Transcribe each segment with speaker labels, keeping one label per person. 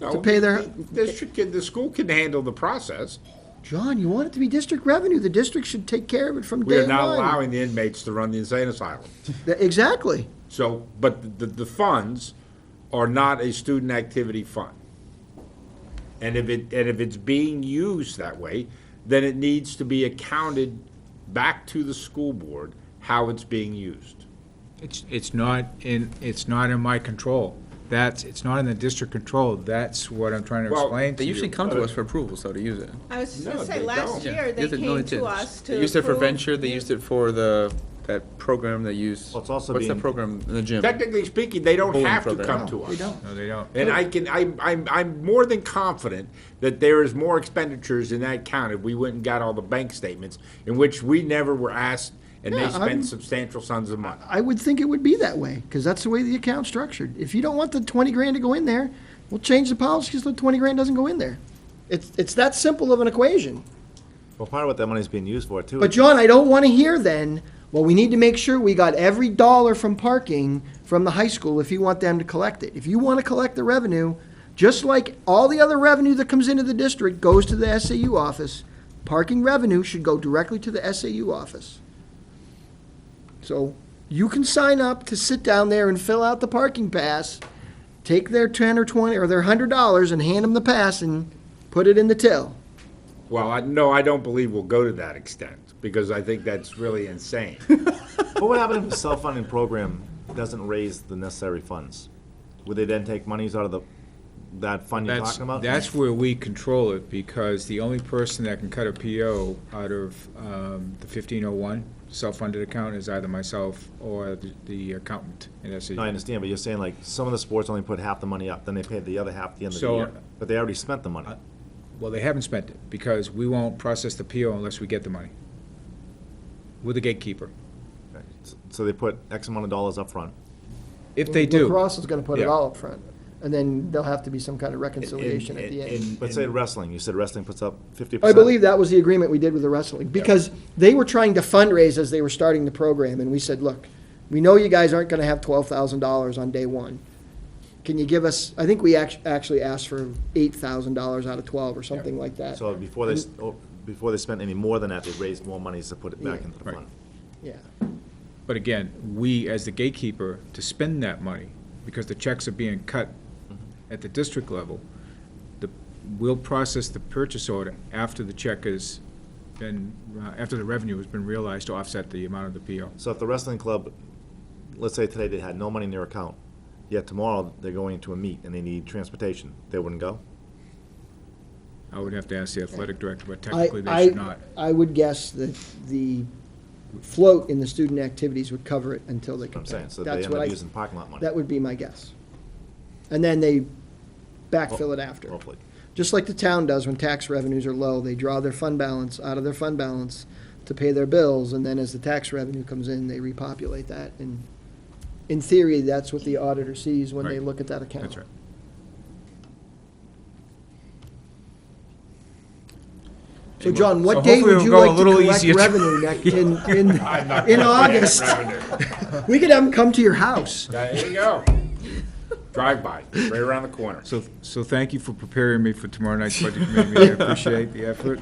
Speaker 1: No,
Speaker 2: to pay their,
Speaker 1: the- the District, can- the school can handle the process.
Speaker 2: John, you want it to be district revenue. The district should take care of it from
Speaker 1: We
Speaker 2: day
Speaker 1: are not
Speaker 2: one.
Speaker 1: allowing the inmates to run the insane asylum.
Speaker 2: Th- Exactly.
Speaker 1: So, but the, the funds are not a student activity fund. And if it, and if it's being used that way, then it needs to be accounted back to the school board how it's being used.
Speaker 3: It's, it's not in, it's not in my control. That's, it's not in the district control. That's what I'm trying to
Speaker 1: Well,
Speaker 3: explain to
Speaker 4: They
Speaker 3: you.
Speaker 4: usually come to us for approvals, though, to use it.
Speaker 5: I was just
Speaker 1: No,
Speaker 5: gonna say,
Speaker 1: they
Speaker 5: last
Speaker 1: don't.
Speaker 5: year, they
Speaker 4: Yes, no,
Speaker 5: came
Speaker 4: it
Speaker 5: to
Speaker 4: is.
Speaker 5: us to
Speaker 4: They used it for
Speaker 5: approve-
Speaker 4: venture, they used it for the, that program they use.
Speaker 6: Well, it's also
Speaker 4: What's that
Speaker 6: being-
Speaker 4: program in the gym?
Speaker 1: Technically speaking, they don't
Speaker 4: Bowling
Speaker 1: have to
Speaker 4: program.
Speaker 1: come to us.
Speaker 2: They don't.
Speaker 3: No, they don't.
Speaker 1: And I can, I, I'm, I'm more than confident that there is more expenditures in that county. We went and got all the bank statements in which we never were asked and they
Speaker 2: Yeah, I'm-
Speaker 1: spent substantial sums of money.
Speaker 2: I would think it would be that way, because that's the way the account's structured. If you don't want the twenty grand to go in there, we'll change the policy so the twenty grand doesn't go in there. It's, it's that simple of an equation.
Speaker 6: Well, part of what that money's being used for too.
Speaker 2: But
Speaker 6: is-
Speaker 2: John, I don't want to hear then, well, we need to make sure we got every dollar from parking from the high school if you want them to collect it. If you want to collect the revenue, just like all the other revenue that comes into the district goes to the SAU office, parking revenue should go directly to the SAU office. So you can sign up to sit down there and fill out the parking pass, take their ten or twenty or their hundred dollars and hand them the pass and put it in the till.
Speaker 1: Well, I, no, I don't believe we'll go to that extent because I think that's really insane.
Speaker 6: What would happen if a self-funding program doesn't raise the necessary funds? Would they then take monies out of the, that fund you're
Speaker 3: That's,
Speaker 6: talking about?
Speaker 3: that's where we control it because the only person that can cut a PO out of um, the 1501 self-funded account is either myself or the- the accountant. And that's it.
Speaker 6: No, I understand, but you're saying like, some of the sports only put half the money up, then they paid the other half at the end of the
Speaker 3: So-
Speaker 6: year. But they already spent the money.
Speaker 3: Well, they haven't spent it because we won't process the PO unless we get the money. We're the gatekeeper.
Speaker 6: So they put X amount of dollars up front.
Speaker 3: If they do,
Speaker 2: Lacrosse is gonna put it
Speaker 3: Yeah.
Speaker 2: all up front, and then there'll have to be some kind of reconciliation at the end.
Speaker 6: But say wrestling, you said wrestling puts up fifty
Speaker 2: I
Speaker 6: percent.
Speaker 2: believe that was the agreement we did with the wrestling, because they were trying to fundraise as they were starting the program, and we said, look, we know you guys aren't gonna have twelve thousand dollars on day one. Can you give us, I think we act- actually asked for eight thousand dollars out of twelve or something like that.
Speaker 6: So before they, s- oh, before they spent any more than that, they raised more monies to put it back
Speaker 2: Yeah.
Speaker 6: into the
Speaker 3: Right.
Speaker 6: fund.
Speaker 2: Yeah.
Speaker 3: but again, we as the gatekeeper to spend that money, because the checks are being cut
Speaker 2: Mm-hmm.
Speaker 3: at the district level, the, we'll process the purchase order after the check has been, uh, after the revenue has been realized to offset the amount of the PO.
Speaker 6: So if the wrestling club, let's say today they had no money in their account, yet tomorrow they're going to a meet and they need transportation, they wouldn't go?
Speaker 3: I would have to ask the athletic director, but
Speaker 2: I,
Speaker 3: technically they should
Speaker 2: I,
Speaker 3: not.
Speaker 2: I would guess that the float in the student activities would cover it until they
Speaker 6: What
Speaker 2: could
Speaker 6: I'm
Speaker 2: pay.
Speaker 6: saying, so they
Speaker 2: That's
Speaker 6: end
Speaker 2: what I-
Speaker 6: up using parking lot money,
Speaker 2: That would be my guess. And then they backfill it
Speaker 3: Oh,
Speaker 2: after.
Speaker 6: hopefully.
Speaker 2: Just like the town does when tax revenues are low, they draw their fund balance out of their fund balance to pay their bills, and then as the tax revenue comes in, they repopulate that. And in theory, that's what the auditor sees when they
Speaker 3: Right.
Speaker 2: look at that account.
Speaker 3: That's right.
Speaker 2: So John, what
Speaker 3: So
Speaker 2: date
Speaker 3: hopefully
Speaker 2: would you
Speaker 3: we'll go a
Speaker 2: like to
Speaker 3: little
Speaker 2: collect
Speaker 3: easier to-
Speaker 2: revenue next, in, in, in August? We could have them come to your house.
Speaker 1: There you go. Drive by, right around the corner.
Speaker 3: So, so thank you for preparing me for tomorrow night's budget committee meeting. I appreciate the effort.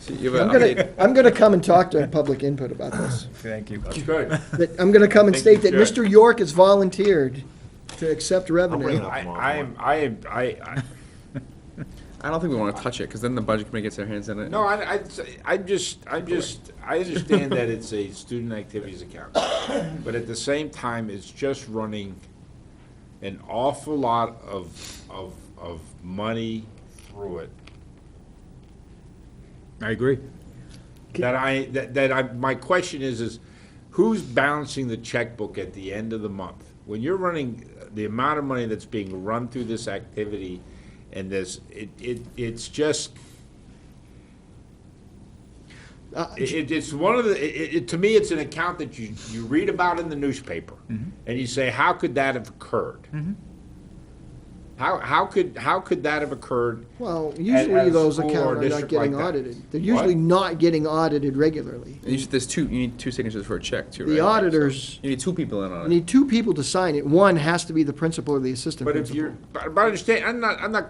Speaker 4: So you
Speaker 2: I'm
Speaker 4: have an update.
Speaker 2: gonna, I'm gonna come and talk during public input about this.
Speaker 3: Thank you.
Speaker 1: Good.
Speaker 2: That, I'm gonna come and
Speaker 1: Think you
Speaker 2: state that
Speaker 1: should.
Speaker 2: Mr. York has volunteered to accept
Speaker 6: bring it
Speaker 2: revenue.
Speaker 6: up.
Speaker 1: I, I am, I am, I, I,
Speaker 4: I don't think we wanna touch it, cause then the budget committee gets their hands in it.
Speaker 1: no, I, I, I'm just, I'm just, I understand that it's a student activities account. But at the same time, it's just running an awful lot of, of, of money through it.
Speaker 3: I agree.
Speaker 1: That I, that, that I, my question is, is who's balancing the checkbook at the end of the month? When you're running uh, the amount of money that's being run through this activity and this, it, it, it's just,
Speaker 2: Uh,
Speaker 1: it, it- it's one of the, it, it, to me, it's an account that you, you read about in the newspaper.
Speaker 2: Mm-hmm.
Speaker 1: And you say, how could that have occurred? How, how could, how could that have occurred?
Speaker 2: Well,
Speaker 1: at
Speaker 2: usually
Speaker 1: a
Speaker 2: those
Speaker 1: school
Speaker 2: accounts are
Speaker 1: or a
Speaker 2: not
Speaker 1: district
Speaker 2: getting
Speaker 1: like that.
Speaker 2: audited. They're
Speaker 1: What?
Speaker 2: usually not getting audited regularly.
Speaker 4: And you should- there's two, you need two signatures for a check too, right?
Speaker 2: The auditors-
Speaker 4: So You need two people in
Speaker 2: You
Speaker 4: on it.
Speaker 2: need two people to sign it. One has to be the principal or the assistant
Speaker 1: But if
Speaker 2: principal.
Speaker 1: you're, but but understand, I'm not, I'm not